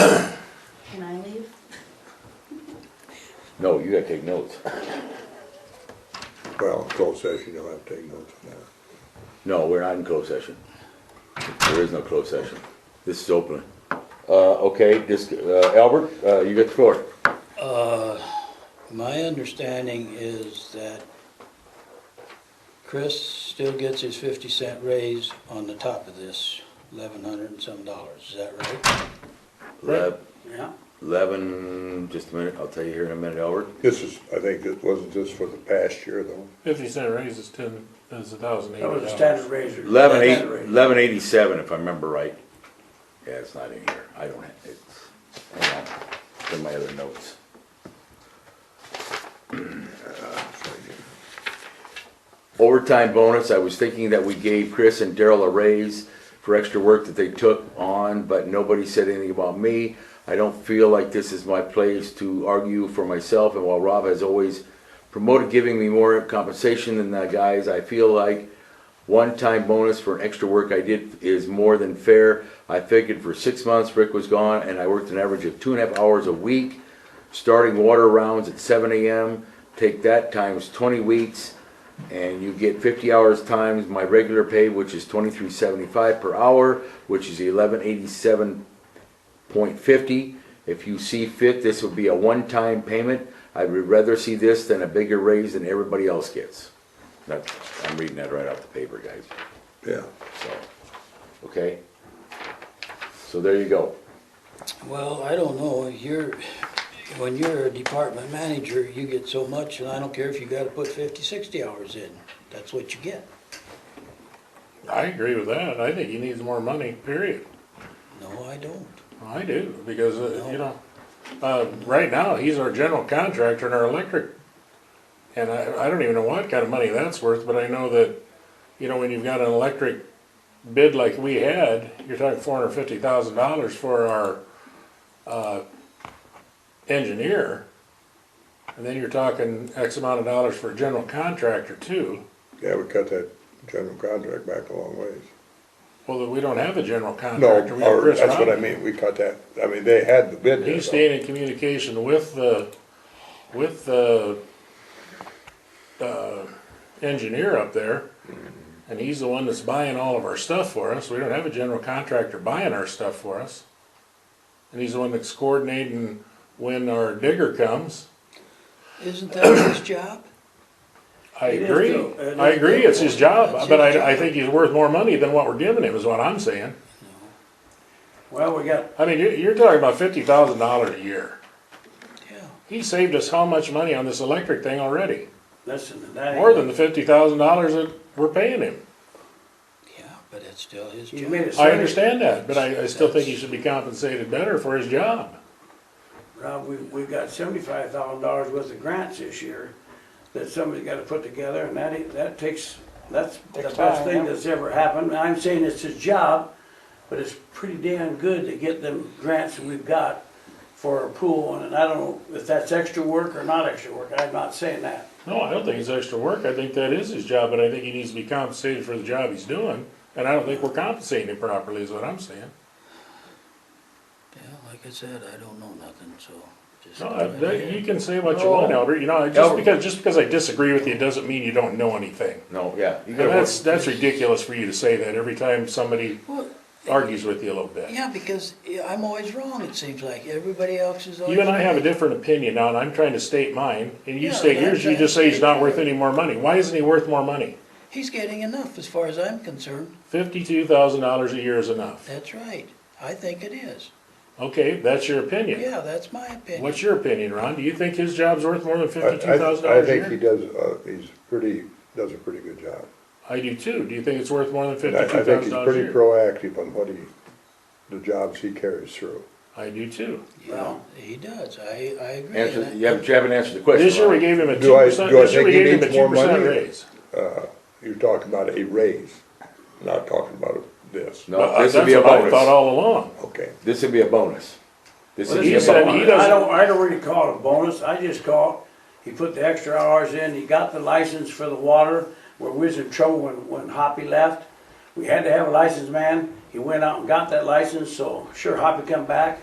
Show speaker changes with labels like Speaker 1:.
Speaker 1: Can I leave?
Speaker 2: No, you gotta take notes.
Speaker 3: Well, closed session, you'll have to take notes on that.
Speaker 2: No, we're not in closed session. There is no closed session. This is open. Uh, okay, this, uh, Albert, uh, you got the floor.
Speaker 4: My understanding is that Chris still gets his fifty cent raise on the top of this, eleven hundred and some dollars, is that right?
Speaker 2: Le-
Speaker 4: Yeah.
Speaker 2: Eleven, just a minute, I'll tell you here in a minute, Albert.
Speaker 3: This is, I think, it wasn't just for the past year though.
Speaker 5: Fifty cent raise is ten, is a thousand eight
Speaker 6: That was a
Speaker 5: dollars.
Speaker 6: standard razor.
Speaker 2: Eleven eight,
Speaker 6: Standard razor.
Speaker 2: eleven eighty-seven, if I remember right. Yeah, it's not in here. I don't have, it's, hang on, it's in my other notes. Overtime bonus, I was thinking that we gave Chris and Daryl a raise for extra work that they took on, but nobody said anything about me. I don't feel like this is my place to argue for myself, and while Rob has always promoted giving me more compensation than the guys, I feel like one-time bonus for an extra work I did is more than fair. I figured for six months, Rick was gone, and I worked an average of two and a half hours a week, starting water rounds at seven AM. Take that times twenty weeks, and you get fifty hours times my regular pay, which is twenty-three seventy-five per hour, which is eleven eighty-seven point fifty. If you see fit, this would be a one-time payment. I would rather see this than a bigger raise than everybody else gets. That, I'm reading that right off the paper, guys,
Speaker 3: Yeah,
Speaker 2: so, okay? So there you go.
Speaker 4: Well, I don't know, you're, when you're a department manager, you get so much, and I don't care if you gotta put fifty, sixty hours in, that's what you get.
Speaker 5: I agree with that. I think he needs more money, period.
Speaker 4: No, I don't.
Speaker 5: I do, because, uh, you know, uh, right now, he's our general contractor in our electric. And I, I don't even know what kind of money that's worth, but I know that, you know, when you've got an electric bid like we had, you're talking four hundred fifty thousand dollars for our, uh, engineer. And then you're talking X amount of dollars for a general contractor too.
Speaker 3: yeah, we cut that general contract back a long ways.
Speaker 5: Well, we don't have a general
Speaker 3: No,
Speaker 5: contractor. We have
Speaker 3: or,
Speaker 5: Chris
Speaker 3: that's what I
Speaker 5: Rodman.
Speaker 3: mean, we cut that, I mean, they had the bid. there,
Speaker 5: He's
Speaker 3: though.
Speaker 5: staying in communication with the, with the, uh, engineer up there. And he's the one that's buying all of our stuff for us. We don't have a general contractor buying our stuff for us. And he's the one that's coordinating when our digger comes.
Speaker 4: Isn't that his job?
Speaker 5: I
Speaker 6: It is
Speaker 5: agree.
Speaker 6: too. It
Speaker 5: I
Speaker 6: is
Speaker 5: agree,
Speaker 6: too.
Speaker 5: it's his job,
Speaker 4: That's
Speaker 5: but
Speaker 4: his
Speaker 5: I, I
Speaker 4: job.
Speaker 5: think he's worth more money than what we're giving him is what I'm saying.
Speaker 6: Well, we got,
Speaker 5: I mean, you're, you're talking about fifty thousand dollars a year.
Speaker 4: Yeah,
Speaker 5: He saved us how much money on this electric thing already?
Speaker 6: listen, that
Speaker 5: More than the
Speaker 6: ain't,
Speaker 5: fifty thousand dollars that we're paying him.
Speaker 4: yeah, but it's still his
Speaker 6: you
Speaker 4: job.
Speaker 6: made a
Speaker 5: I
Speaker 6: statement,
Speaker 5: understand that, but I, I still think he should be compensated better for his job.
Speaker 6: Rob, uh, we, we got seventy-five thousand dollars worth of grants this year that somebody's gotta put together, and that, ain't- that takes, that's the
Speaker 7: Takes
Speaker 6: best
Speaker 7: time,
Speaker 6: thing
Speaker 7: yeah.
Speaker 6: that's ever happened. I'm saying it's his job, but it's pretty damn good to get them grants that we've got for a pool, and I don't know if that's extra work or not extra work, I'm not saying that.
Speaker 5: No, I don't think it's extra work. I think that is his job, but I think he needs to be compensated for the job he's doing. And I don't think we're compensating him properly is what I'm saying.
Speaker 4: Yeah, like I said, I don't know nothing, so just.
Speaker 5: No,
Speaker 4: go
Speaker 5: I,
Speaker 4: ahead.
Speaker 5: that- you can say what you want, Albert. You know, just
Speaker 2: Albert.
Speaker 5: because, just because I disagree with you doesn't mean you don't know anything.
Speaker 2: No, yeah. you
Speaker 5: And
Speaker 2: gotta work.
Speaker 5: that's, that's ridiculous for you to say that every time somebody
Speaker 4: Well,
Speaker 5: argues with you a little bit.
Speaker 4: yeah, because yeah, I'm always wrong, it seems like. Everybody else is always.
Speaker 5: You and I have a different opinion now, and I'm trying to state mine, and you
Speaker 4: Yeah,
Speaker 5: state yours, you
Speaker 4: that's
Speaker 5: just say he's
Speaker 4: right.
Speaker 5: not worth any more money. Why isn't he worth more money?
Speaker 4: He's getting enough as far as I'm concerned.
Speaker 5: Fifty-two thousand dollars a year is enough.
Speaker 4: That's right. I think it is.
Speaker 5: Okay, that's your opinion.
Speaker 4: Yeah, that's my opinion.
Speaker 5: What's your opinion, Ron? Do you think his job's worth more than
Speaker 3: I-
Speaker 5: fifty-two thousand
Speaker 3: I, I
Speaker 5: dollars a
Speaker 3: think he
Speaker 5: year?
Speaker 3: does, uh, he's pretty, does a pretty good job.
Speaker 5: I do too. Do you think it's worth more than
Speaker 3: I, I
Speaker 5: fifty-two
Speaker 3: think
Speaker 5: thousand
Speaker 3: he's
Speaker 5: dollars a
Speaker 3: pretty
Speaker 5: year?
Speaker 3: proactive on what he, the jobs he carries through.
Speaker 5: I do too.
Speaker 4: Yeah, he does. I, I agree.
Speaker 2: Answer,
Speaker 4: And I-
Speaker 2: you haven't, you haven't answered the question.
Speaker 5: This year we
Speaker 2: Ron.
Speaker 5: gave him a two
Speaker 3: Do I-
Speaker 5: percent,
Speaker 3: do I
Speaker 5: this year we
Speaker 3: think he
Speaker 5: gave him a
Speaker 3: needs
Speaker 5: two
Speaker 3: more
Speaker 5: percent
Speaker 3: money?
Speaker 5: raise.
Speaker 3: You're talking about a raise, not talking about this.
Speaker 5: Well,
Speaker 2: No,
Speaker 5: I-
Speaker 2: this
Speaker 5: That's
Speaker 2: would be a
Speaker 5: what I thought
Speaker 2: bonus.
Speaker 5: all along.
Speaker 3: Okay,
Speaker 2: This would be a bonus. This would
Speaker 6: Well,
Speaker 2: be
Speaker 6: he
Speaker 2: a
Speaker 5: said
Speaker 6: said,
Speaker 2: bonus.
Speaker 5: he
Speaker 6: I
Speaker 5: doesn't-
Speaker 6: don't, I don't really call it a bonus, I just call it, he put the extra hours in, he got the license for the water, where we was in trouble when, when Hoppy left. We had to have a licensed man, he went out and got that license, so sure Hoppy come back,